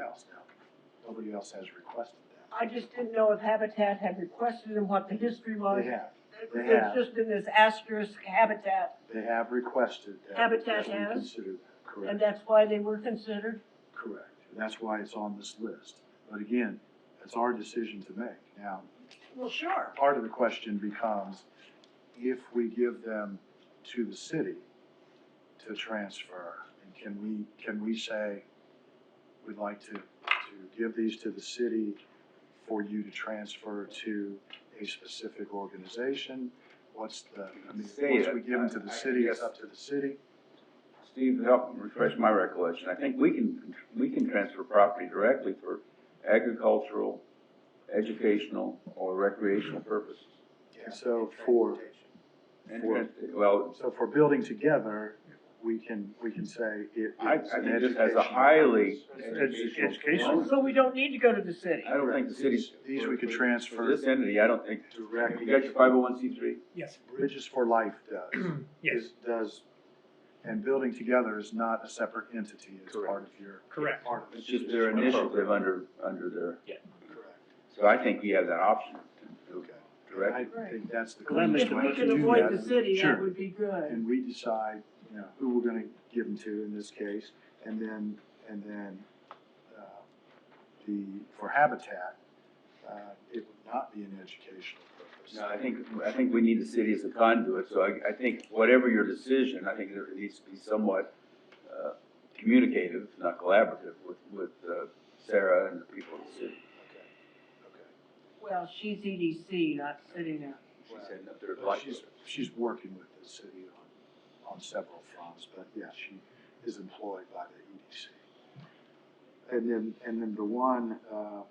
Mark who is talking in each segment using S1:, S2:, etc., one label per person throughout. S1: else now. Nobody else has requested that.
S2: I just didn't know if Habitat had requested and what the history was.
S1: They have, they have.
S2: It's just in this asterisk Habitat,
S1: they have requested that.
S2: Habitat
S1: that we
S2: has?
S1: Consider that, correct.
S2: and that's why they were considered.
S1: Correct. That's why it's on this list. But again, it's our decision to make. Now,
S2: Well, sure.
S1: part of the question becomes, if we give them to the city to transfer, and can we, can we say, we'd like to, to give these to the city for you to transfer to a specific organization? What's the, I mean,
S3: Say
S1: once
S3: it.
S1: we give them to the
S3: I- I
S1: city, it's
S3: guess-
S1: up to the city?
S3: Steve, help refresh my recollection. I think we can, we can transfer property directly for agricultural, educational, or recreational purposes.
S1: And so for,
S3: And,
S1: For-
S3: trans- well,
S1: So for building together, we can, we can say it.
S3: I, I
S1: it's an
S3: think this has a
S1: educational
S3: highly
S1: purpose.
S3: educational.
S4: educational.
S2: So we don't need to go to the city.
S3: I don't think the city's.
S1: These we could
S3: For
S1: transfer
S3: this entity, I don't think, you got
S1: directly,
S3: your five oh one C three?
S4: Yes,
S1: Bridges for Life does.
S4: yes,
S1: is- Does, and building together is not a separate entity, it's
S5: Correct.
S1: part of your.
S4: correct.
S1: Part of it.
S3: It's just their initiative under, under their,
S1: Correct,
S3: so I think we have that option to
S1: okay. I
S3: direct.
S1: think that's the
S5: Glenn
S1: cleanest
S2: If
S1: way
S2: we
S1: to
S2: can
S1: do
S2: avoid the
S1: that.
S2: city,
S5: Sure.
S2: that would be good.
S1: And we decide, you know, who we're gonna give them to in this case, and then, and then, uh, the, for Habitat, uh, it would not be an educational purpose.
S3: No, I think, I think we need the city as a conduit, so I, I think whatever your decision, I think there needs to be somewhat, uh, communicative, not collaborative with, with, uh, Sarah and the people of the city.
S1: Okay,
S2: Well, she's EDC, not city now.
S3: She said that they're
S1: But
S3: like,
S1: she's, she's working with the city on, on several fronts, but yeah, she is employed by the EDC. And then, and then the one, uh,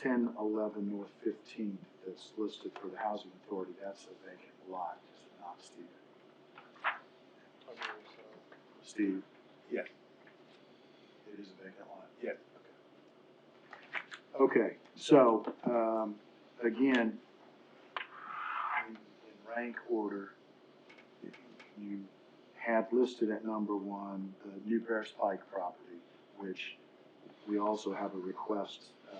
S1: ten eleven North Fifteenth that's listed for the housing authority, that's a vacant lot, is it not, Steve? Steve?
S3: Yes.
S1: It is a vacant lot?
S3: Yes.
S1: Okay, so, um, again, in in rank order, you had listed at number one, the New Paris Pike property, which we also have a request uh,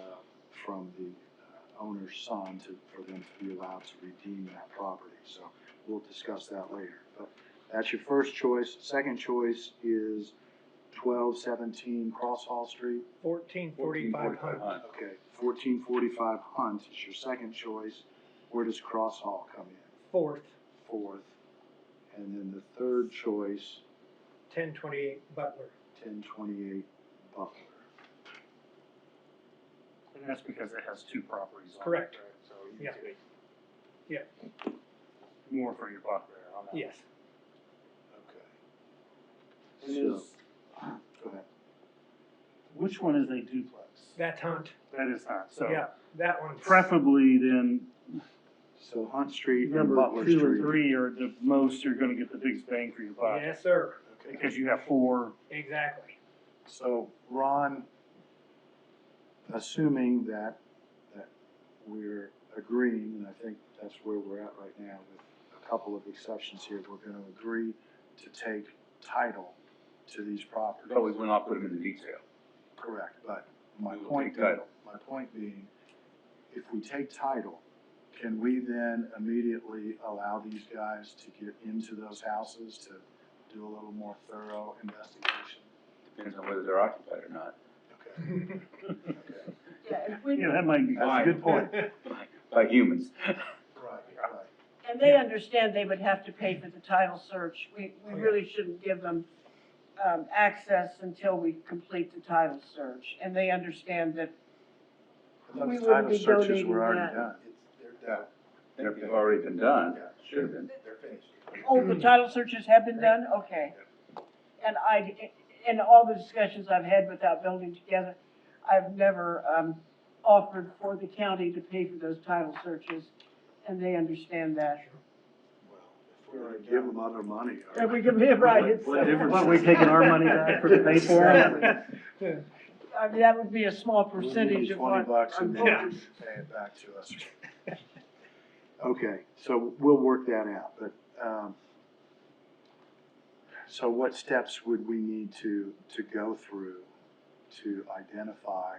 S1: from the uh, owner's son to, for them to be allowed to redeem that property. So we'll discuss that later. But that's your first choice. Second choice is twelve seventeen Cross Hall Street.
S4: Fourteen
S3: 14,
S4: forty-five
S3: 45
S4: hundred.
S3: Hunt.
S1: Okay, fourteen forty-five Hunt is your second choice. Where does Cross Hall come in?
S4: Fourth,
S1: Fourth. And then the third choice
S4: ten twenty-eight Butler.
S1: ten twenty-eight Butler.
S5: And that's because it has two properties on it.
S4: Correct.
S5: right? So you
S4: Yeah.
S5: take
S4: Yeah.
S5: More for your buck there on that.
S4: Yes,
S1: Okay.
S5: And
S1: So,
S5: is-
S1: go ahead.
S5: which one is a duplex?
S4: that's Hunt.
S5: That is not,
S4: Yeah,
S5: so
S4: that one.
S5: preferably then,
S1: So Hunt Street and
S5: number
S1: Butler
S5: two and
S1: Street.
S5: three are the most you're gonna get the biggest bang for your buck.
S4: Yes, sir.
S1: Okay.
S5: Because you have four,
S4: Exactly.
S1: So Ron, assuming that, that we're agreeing, and I think that's where we're at right now with a couple of exceptions here, we're gonna agree to take title to these properties.
S3: But we will not put them in the detail.
S1: Correct, but my
S3: We will
S1: point,
S3: take
S1: being-
S3: title.
S1: my point being, if we take title, can we then immediately allow these guys to get into those houses to do a little more thorough investigation?
S3: Depends on whether they're occupied or not.
S1: Okay, okay.
S2: Yeah, and we-
S5: yeah, that might be.
S1: That's a good point.
S3: By humans.
S1: Right, right.
S2: And they understand they would have to pay for the title search. We,
S4: Oh,
S2: we
S4: yeah.
S2: really shouldn't give them, um, access until we complete the title search. And they understand that
S1: I thought
S2: We
S1: the
S2: wouldn't
S1: title
S2: be
S1: searches
S2: donating
S1: were already
S2: that.
S1: done.
S3: They're- They've already been done, should have been.
S2: Oh, the title searches have been done, okay. And I, in all the discussions I've had without building together, I've never, um, offered for the county to pay for those title searches, and they understand that.
S1: Well, if we're gonna give them other money. all
S2: And we
S1: right.
S2: can be right, it's,
S1: What difference
S5: But we're taking our money back for the pay for it.
S2: I mean, that would be a small
S1: We'll give
S2: percentage
S1: you
S2: of what.
S1: Twenty bucks
S2: I'm
S1: and then
S2: voting.
S1: you pay it back to us. Okay, so we'll work that out, but, um, so what steps would we need to, to go through to identify